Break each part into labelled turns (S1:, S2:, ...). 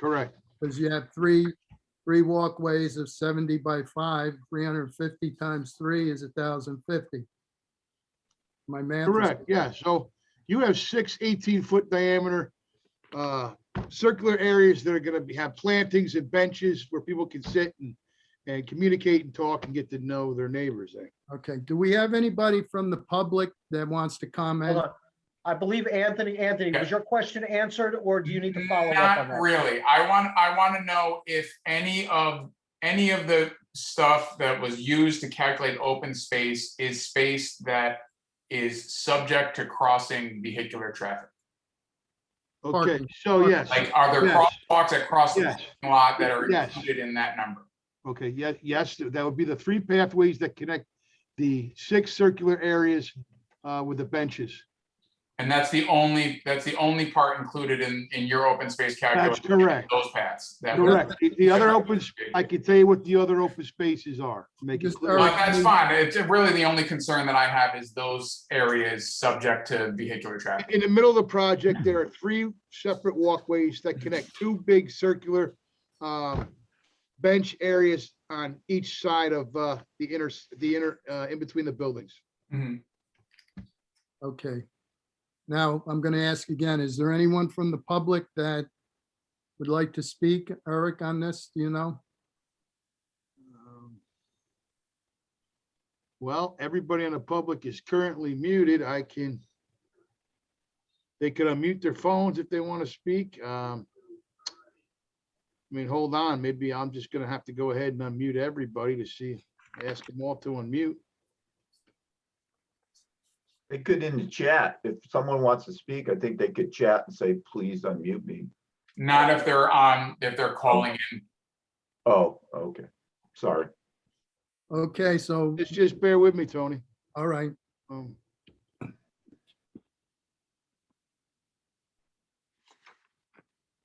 S1: Correct.
S2: because you have three, three walkways of seventy by five, three hundred and fifty times three is thousand fifty. My math. is-
S1: Correct, yeah, so you have six 18-foot diameter uh, circular areas that are gonna be, have plantings and benches where people can sit and, and communicate and talk and get to know their neighbors eh? there.
S2: Okay, do we have anybody from the public that wants to
S3: Hold
S2: comment?
S3: on. I believe Anthony, Anthony, was your question answered or do you need to follow up on
S4: Not
S3: that?
S4: really. I want, I want to know if any of, any of the stuff that was used to calculate open space is space that is subject to crossing vehicular traffic.
S1: Okay,
S2: Parking.
S1: so yes,
S4: Like, are there
S1: Yes.
S4: crosswalks that cross the
S1: Yes.
S4: parking lot that are
S1: Yes.
S4: included in that number?
S1: okay, yes, yes, that would be the three pathways that connect the six circular areas uh, with the benches.
S4: And that's the only, that's the only part included in, in your open space
S1: That's
S4: calculation,
S1: correct,
S4: those paths. that were-
S1: correct. The- The other opens, I can tell you what the other open spaces are. to Make it
S2: Just
S1: clear.
S4: Well, That's fine. It's really the only concern that I have is those areas subject to vehicular traffic.
S1: In the middle of the project, there are three separate walkways that connect two big circular um, bench areas on each side of uh, the inner, the inner, uh, in between the buildings.
S4: Mhm.
S2: Okay. Now, I'm going to ask again, is there anyone from the public that would like to speak, Eric, on this? Do you know?
S1: Well, everybody in the public is currently muted. I can they could unmute their phones if they want to speak. Um, I mean, hold on, maybe I'm just gonna have to go ahead and unmute everybody to see, ask them all to unmute.
S5: They could in the chat, if someone wants to speak, I think they could chat and say, please unmute me.
S4: Not if they're on, if they're calling in.
S5: Oh, okay, sorry.
S2: Okay, so,
S1: Just, just bear with me, Tony.
S2: all right.
S1: Um,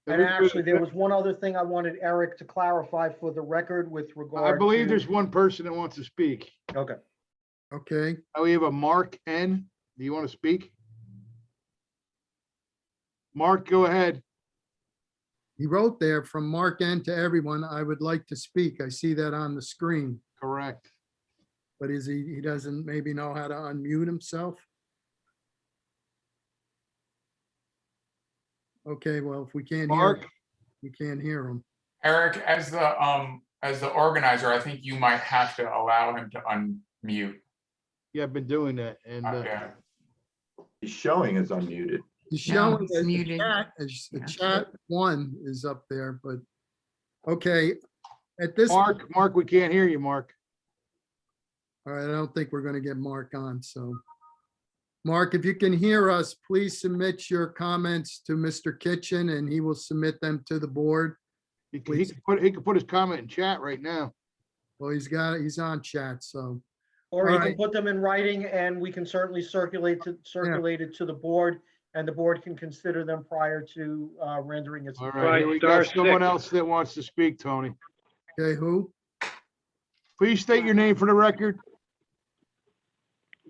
S3: And actually, there was one other thing I wanted Eric to clarify for the record with regard.
S1: I believe
S3: to-
S1: there's one person that wants to speak.
S3: Okay.
S2: Okay,
S1: Uh, We have a Mark N. Do you want to speak? Mark, go ahead.
S2: he wrote there from Mark N to everyone, I would like to speak. I see that on the screen.
S1: Correct.
S2: But is he, he doesn't maybe know how to unmute himself? Okay, well, if we can't hear,
S1: Mark,
S2: him, we can't hear him.
S4: Eric, as the, um, as the organizer, I think you might have to allow him to unmute.
S1: yeah, I've been doing that and uh,
S4: Okay.
S5: He's showing is unmuted.
S2: He's
S6: No,
S2: showing
S6: he's
S2: that the
S6: muted.
S2: chat, is- the
S6: Yeah.
S2: chat one is up there, but, okay, at this, all
S1: Mark, Mark, we can't hear you, Mark.
S2: right, I don't think we're gonna get Mark on, so. Mark, if you can hear us, please submit your comments to Mr. Kitchen and he will submit them to the board.
S1: He can, he can put, he can put his comment in chat right now.
S2: Well, he's got, he's on chat, so.
S3: Or you can
S2: Alright.
S3: put them in writing and we can certainly circulate to, circulate it to the board and the board can consider them prior to uh, rendering its.
S1: All right, here we
S7: star
S1: got someone
S7: six.
S1: else that wants to speak, Tony.
S2: Okay, who?
S1: Please state your name for the record.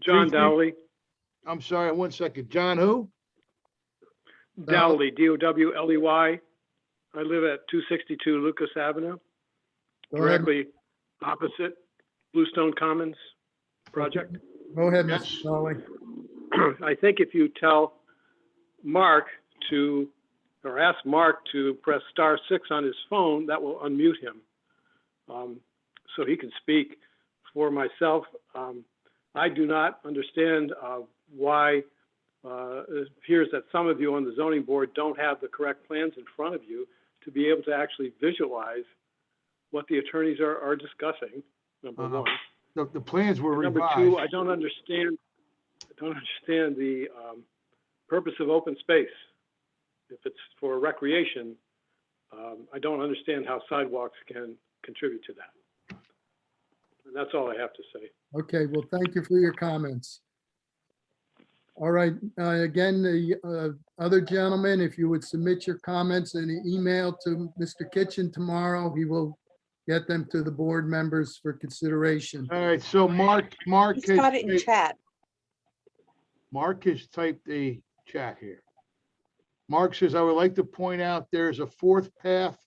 S7: John
S1: Briefly.
S7: Dowley,
S1: I'm sorry, one second. John who?
S2: Uh,
S7: Dowley, D-O-W-L-E-Y. E I live at 262 Lucas Avenue,
S2: Go ahead,
S7: directly opposite Bluestone Commons project.
S2: Go ahead,
S1: Yes.
S2: Mr. Foley.
S7: I think if you tell Mark to, or ask Mark to press star six on his phone, that will unmute him. Um, So he can speak for myself. Um, I do not understand uh, why uh, it appears that some of you on the zoning board don't have the correct plans in front of you to be able to actually visualize what the attorneys are, are discussing, number
S1: Uh-huh.
S7: one.
S1: The, the plans were
S7: Number two, I
S1: revised.
S7: don't understand, I don't understand the um, purpose of open space. If it's for recreation, um, I don't understand how sidewalks can contribute to that. And that's all I have to say.
S2: Okay, well, thank you for your comments. All right, uh, again, the uh, other gentleman, if you would submit your comments in an email to Mr. Kitchen tomorrow, he will get them to the board members for consideration.
S1: All right, so Mark, Mark.
S8: He's
S1: has
S8: got it in
S1: typed-
S8: chat.
S1: Mark has typed a chat here. Mark says, I would like to point out there's a fourth path